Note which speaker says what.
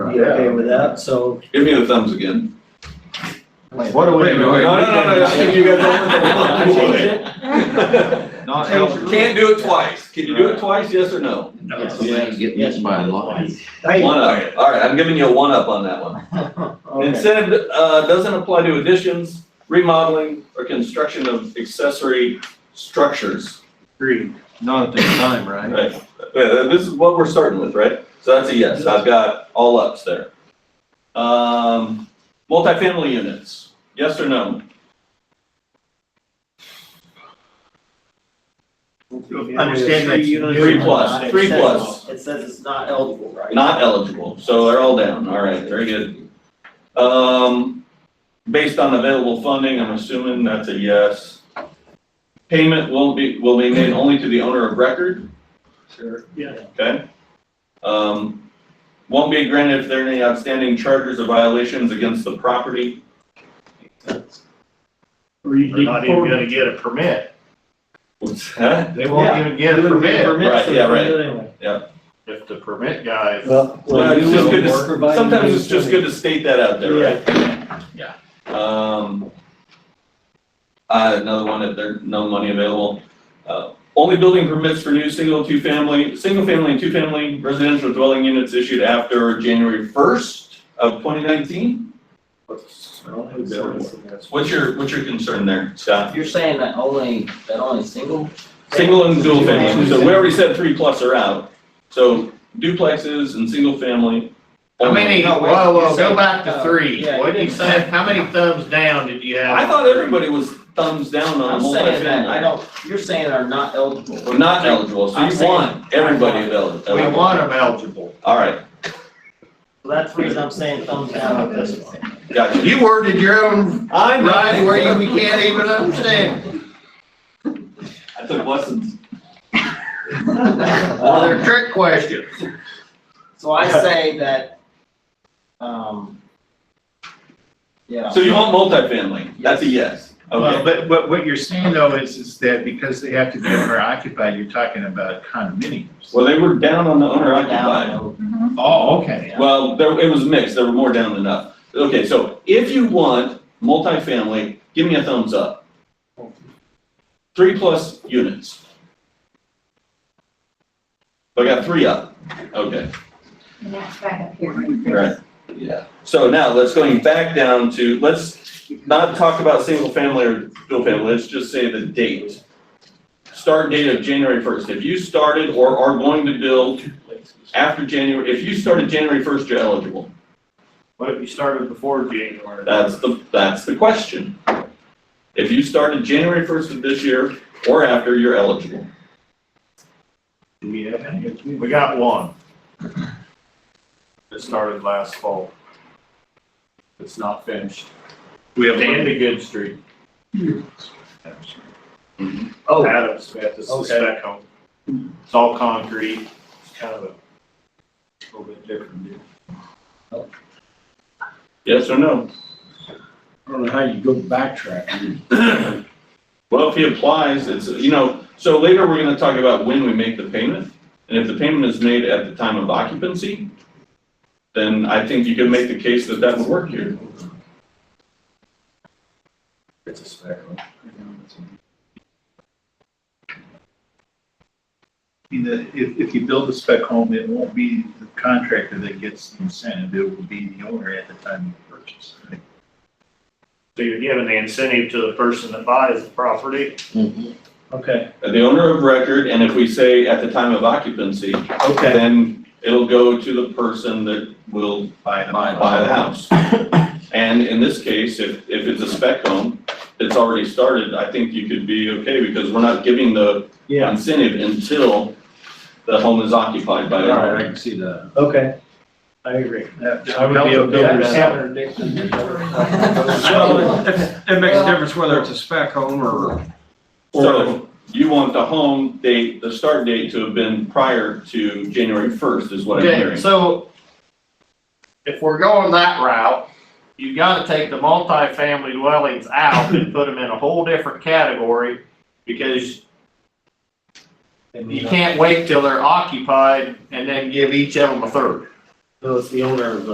Speaker 1: be okay with that, so.
Speaker 2: Give me the thumbs again.
Speaker 3: What are we?
Speaker 2: Wait, wait, wait. No, no, no, no, I think you got the-
Speaker 3: Change it.
Speaker 2: Not
Speaker 3: Change
Speaker 2: eligible.
Speaker 3: the
Speaker 2: Can't do it twice. Can you do it twice, yes or no?
Speaker 1: Yes, yes.
Speaker 4: by law.
Speaker 1: Hey,
Speaker 2: One up. All right, I'm giving you a one up on that one.
Speaker 1: okay.
Speaker 2: Incentive, uh, doesn't apply to additions, remodeling, or construction of accessory structures.
Speaker 1: Agreed.
Speaker 3: Not at this time, right?
Speaker 2: Right, Uh, this is what we're starting with, right? So that's a yes, I've got all ups there. Um, multifamily units, yes or no?
Speaker 1: Understand
Speaker 3: that-
Speaker 2: Three plus, three plus.
Speaker 1: It says it's not eligible, right?
Speaker 2: Not eligible, so they're all down, all right, very good. Um, based on available funding, I'm assuming that's a yes. Payment will be, will be made only to the owner of record,
Speaker 1: Sure. Yeah.
Speaker 2: okay? Um, won't be granted if there are any outstanding charges or violations against the property.
Speaker 5: Or you
Speaker 3: They're not even gonna get a permit.
Speaker 2: What's that?
Speaker 3: They won't even get a permit
Speaker 2: Right, yeah, right.
Speaker 1: right.
Speaker 3: if the permit guy.
Speaker 1: Well,
Speaker 2: Well,
Speaker 1: well,
Speaker 2: it's
Speaker 1: you
Speaker 2: just good
Speaker 1: will
Speaker 2: to-
Speaker 1: provide.
Speaker 2: Sometimes it's just good to state that out there, right?
Speaker 3: Yeah.
Speaker 2: Um, uh, another one, if there's no money available. Uh, Only building permits for new single, two-family, single-family and two-family residential dwelling units issued after January first of twenty nineteen? What's your, what's your concern there, Scott?
Speaker 4: You're saying that only, that only single?
Speaker 2: Single and dual family, so we already said three plus are out. So duplexes and single-family.
Speaker 3: How many, whoa, whoa, go back to
Speaker 4: uh,
Speaker 3: three.
Speaker 4: yeah,
Speaker 3: What did you
Speaker 4: you-
Speaker 3: say? How many thumbs down did you have?
Speaker 2: I thought everybody was thumbs down on
Speaker 4: I'm saying that, I
Speaker 2: multifamily.
Speaker 4: don't, you're saying are not eligible.
Speaker 2: We're not eligible, so
Speaker 4: I'm
Speaker 2: you
Speaker 4: saying-
Speaker 2: want everybody available.
Speaker 3: We want them eligible.
Speaker 2: All right,
Speaker 1: That's the reason I'm saying thumbs down on this one.
Speaker 2: gotcha.
Speaker 3: You worded your own
Speaker 2: I'm
Speaker 3: right where you we can't even understand.
Speaker 2: I took lessons.
Speaker 3: Well, they're trick questions.
Speaker 4: So I say that, um, yeah.
Speaker 2: So you want multifamily? That's a yes.
Speaker 6: Well,
Speaker 2: Okay,
Speaker 6: but, but what you're saying though is, is that because they have to be owner occupied, you're talking about condominiums.
Speaker 2: well, they were down on the owner occupied.
Speaker 4: Now,
Speaker 7: Mm-hmm.
Speaker 6: Oh, okay.
Speaker 2: Well, there, it was mixed, there were more down than up. Okay, so if you want multifamily, give me a thumbs up. Three plus units. I got three up, okay.
Speaker 7: And that's back up here.
Speaker 2: Right, yeah. So now, let's going back down to, let's not talk about single family or dual family, let's just say the date. Start date of January first. If you started or are going to build after January, if you started January first, you're eligible.
Speaker 5: What if you started before January?
Speaker 2: That's the, that's the question. If you started January first of this year or after, you're eligible.
Speaker 6: Do we have any?
Speaker 5: We got one. It started last fall. It's not finished.
Speaker 6: We have
Speaker 5: Danby Good Street,
Speaker 1: Oh.
Speaker 5: Adam Smith, this is
Speaker 1: Okay.
Speaker 5: spec home. It's all concrete, it's kind of a little bit different. deal.
Speaker 2: Yes or no?
Speaker 6: I don't know how you go backtrack.
Speaker 2: Well, if he applies, it's, you know, so later we're gonna talk about when we make the payment. And if the payment is made at the time of occupancy, then I think you can make the case that that would work here.
Speaker 5: It's a spec home.
Speaker 6: If, if you build a spec home, it won't be the contractor that gets the incentive, it will be the owner at the time of purchase.
Speaker 5: So you're giving the incentive to the person that buys the property.
Speaker 6: Okay,
Speaker 2: The owner of record, and if we say at the time of occupancy,
Speaker 6: okay.
Speaker 2: then it'll go to the person that will
Speaker 6: Buy the
Speaker 2: buy, buy the house. And in this case, if, if it's a spec home that's already started, I think you could be okay because we're not giving the
Speaker 1: Yeah.
Speaker 2: incentive until the home is occupied by the owner.
Speaker 6: can see that.
Speaker 1: Okay. I agree.
Speaker 6: I would be okay with that.
Speaker 4: Well,
Speaker 3: It
Speaker 4: makes a
Speaker 3: difference whether it's a spec home or.
Speaker 2: So you want the home date, the start date to have been prior to January first is what I'm
Speaker 3: Okay,
Speaker 2: hearing.
Speaker 3: so if we're going that route, you gotta take the multifamily dwellings out and put them in a whole different category because you can't wait till they're occupied and then give each of them a third.
Speaker 1: So it's the owner of the